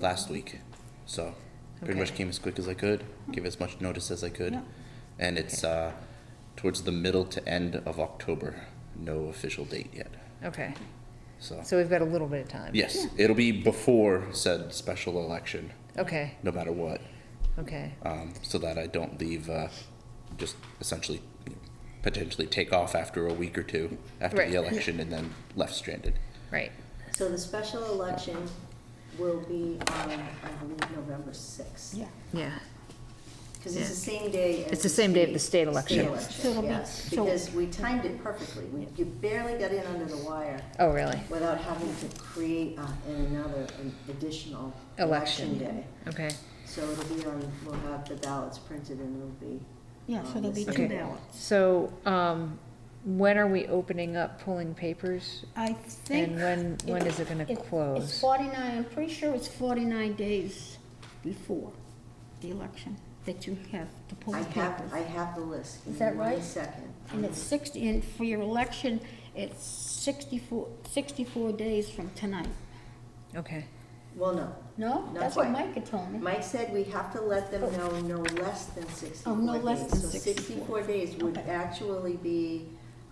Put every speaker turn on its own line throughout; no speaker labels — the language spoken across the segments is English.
last week. So pretty
Okay.
much came as quick as I could, give as much notice as I could.
Yeah.
And it's uh, towards the middle to end of October. No official date yet.
Okay,
So,
so we've got a little bit of time.
yes, it'll be before said special election,
Okay,
no matter what,
okay,
um, so that I don't leave uh, just essentially you know, potentially take off after a week or two after
Right.
the election and then left stranded.
right,
So the special election will be on, I believe, November sixth.
Yeah.
yeah,
Because it's the same day as.
It's the same day of the state election.
So it'll be-
yes,
so-
because we timed it perfectly. We- You barely got in under the wire
oh, really?
without having to create uh, another an additional election
Election.
day.
Okay,
So it'll be on, we'll have the ballots printed and it'll be.
Yeah,
on
so
the
there'll be
same
two
Okay.
day.
ballots.
so, um, when are we opening up pulling papers?
I think.
And when, when is it gonna
It's
close?
forty-nine, I'm pretty sure it's forty-nine days before the election that you have to pull
I
the
have, I
papers.
have the list. Give
Is
me
that
one
right?
second.
And it's sixty, and for your election, it's sixty-four, sixty-four days from tonight.
Okay,
Well, no.
No?
Not
That's what
quite.
Mike had told me.
Mike said we have to let them know no less than
Oh, no
sixty-four
less
days.
than
So
64.
sixty-four days would
Okay.
actually be,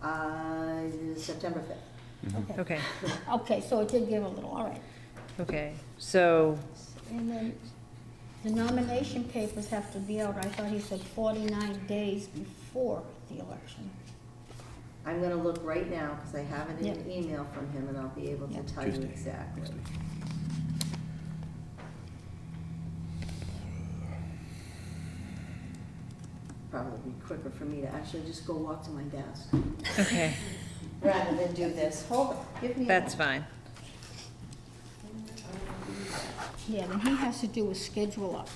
uh, September fifth.
Mm-hmm. Okay,
okay,
okay, so it did give a little, all right.
okay, so,
And then the nomination papers have to be out, I thought he said forty-nine days before the election.
I'm gonna look right now, because I have it in an
Yeah.
email from him, and I'll be able
Yeah.
to tell you
Tuesday
exactly.
next week.
Probably be quicker for me to actually just go walk to my desk,
okay,
rather than do this. Hold on, give me a
that's
moment.
fine.
Yeah, then he has to do a schedule up.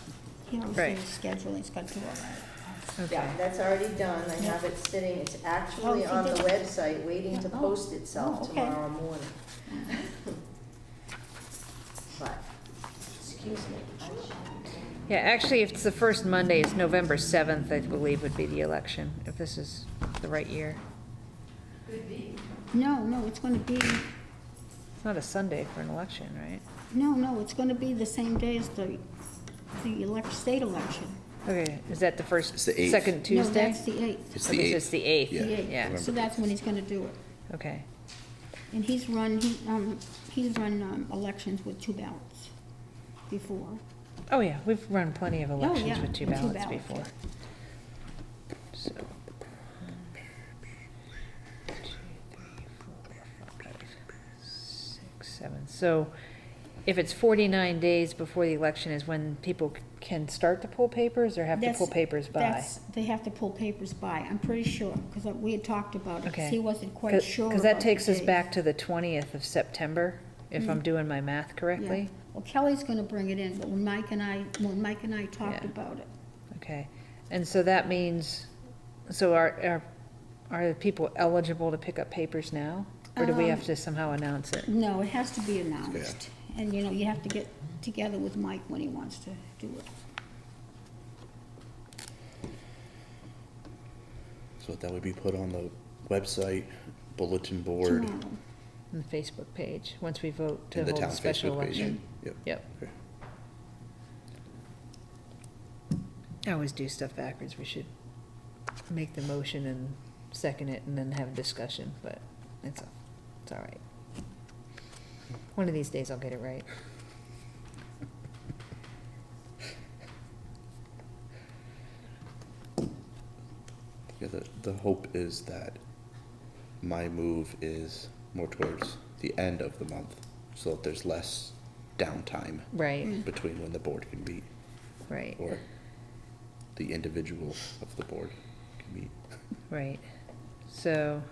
He knows
Right.
his schedule, he's got to do all that.
Okay,
Yeah, that's already done. I have it sitting, it's actually
Oh, he
on the
did-
website, waiting
Yeah,
to
oh,
post
oh,
itself
okay. Mm.
tomorrow morning. But, excuse me. I should-
yeah, actually, if it's the first Monday, it's November seventh, I believe would be the election, if this is the right year.
No, no, it's gonna be,
It's not a Sunday for an election, right?
no, no, it's gonna be the same day as the, the elec, state election.
Okay, is that the first,
It's the eighth.
second Tuesday?
No, that's the eighth,
It's
Okay,
the
so
eighth.
It's the eighth,
Yeah,
the
yeah,
eighth. So that's when he's gonna do it.
okay,
And he's run, he, um, he's run, um, elections with two ballots before.
oh yeah, we've run plenty of elections
Oh, yeah,
with two
two
ballots
ballots.
before. So, one, two, three, four, five, six, seven. so if it's forty-nine days before the election is when people c- can start to pull papers or have to pull
That's-
papers by?
that's- They have to pull papers by, I'm pretty sure, because we had talked about it, 'cause
Okay.
he wasn't quite sure
Because that
about the
takes us
days.
back to the twentieth of September, if I'm doing my math
Yeah.
correctly.
Well, Kelly's gonna bring it in, but when Mike and I, when Mike and I talked
Yeah.
about it,
Okay, and so that means, so are, are, are the people eligible to pick up papers now? Or do we have
Um,
to somehow announce it?
no, it has to be announced. And, you know, you have to get together with Mike when he wants to do it.
So that would be put on the website, bulletin board,
tomorrow.
On the Facebook page, once we vote to
and the
hold a
town
special
Facebook page.
election?
Yep.
Yep,
Okay.
I always do stuff backwards, we should make the motion and second it and then have a discussion, but it's, all- it's all right. One of these days I'll get it right.
Yeah, the, the hope is that my move is more towards the end of the month, so that there's less downtime
Right,
Mm. Mm-hmm.
between when the board can meet,
right,
or the individual of the board can meet.
right. So,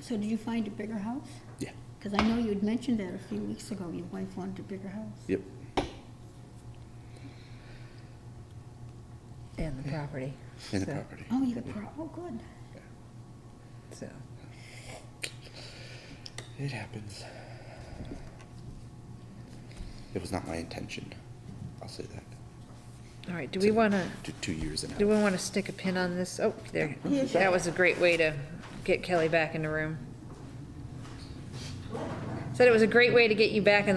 So did you find a bigger house?
Yeah.
Because I know you had mentioned that a few weeks ago, your wife wanted a bigger house.
Yep,
and the property,
in the
So-
property.
Oh, you got, pro- oh, good.
so.
It happens. It was not my intention, I'll say that.
All right, do we want to,
Two, two years and a half.
do we want to stick a pin on this? Oh, there.
Yeah,
That was a great way to get Kelly back in the room. Said it was a great way to get you back in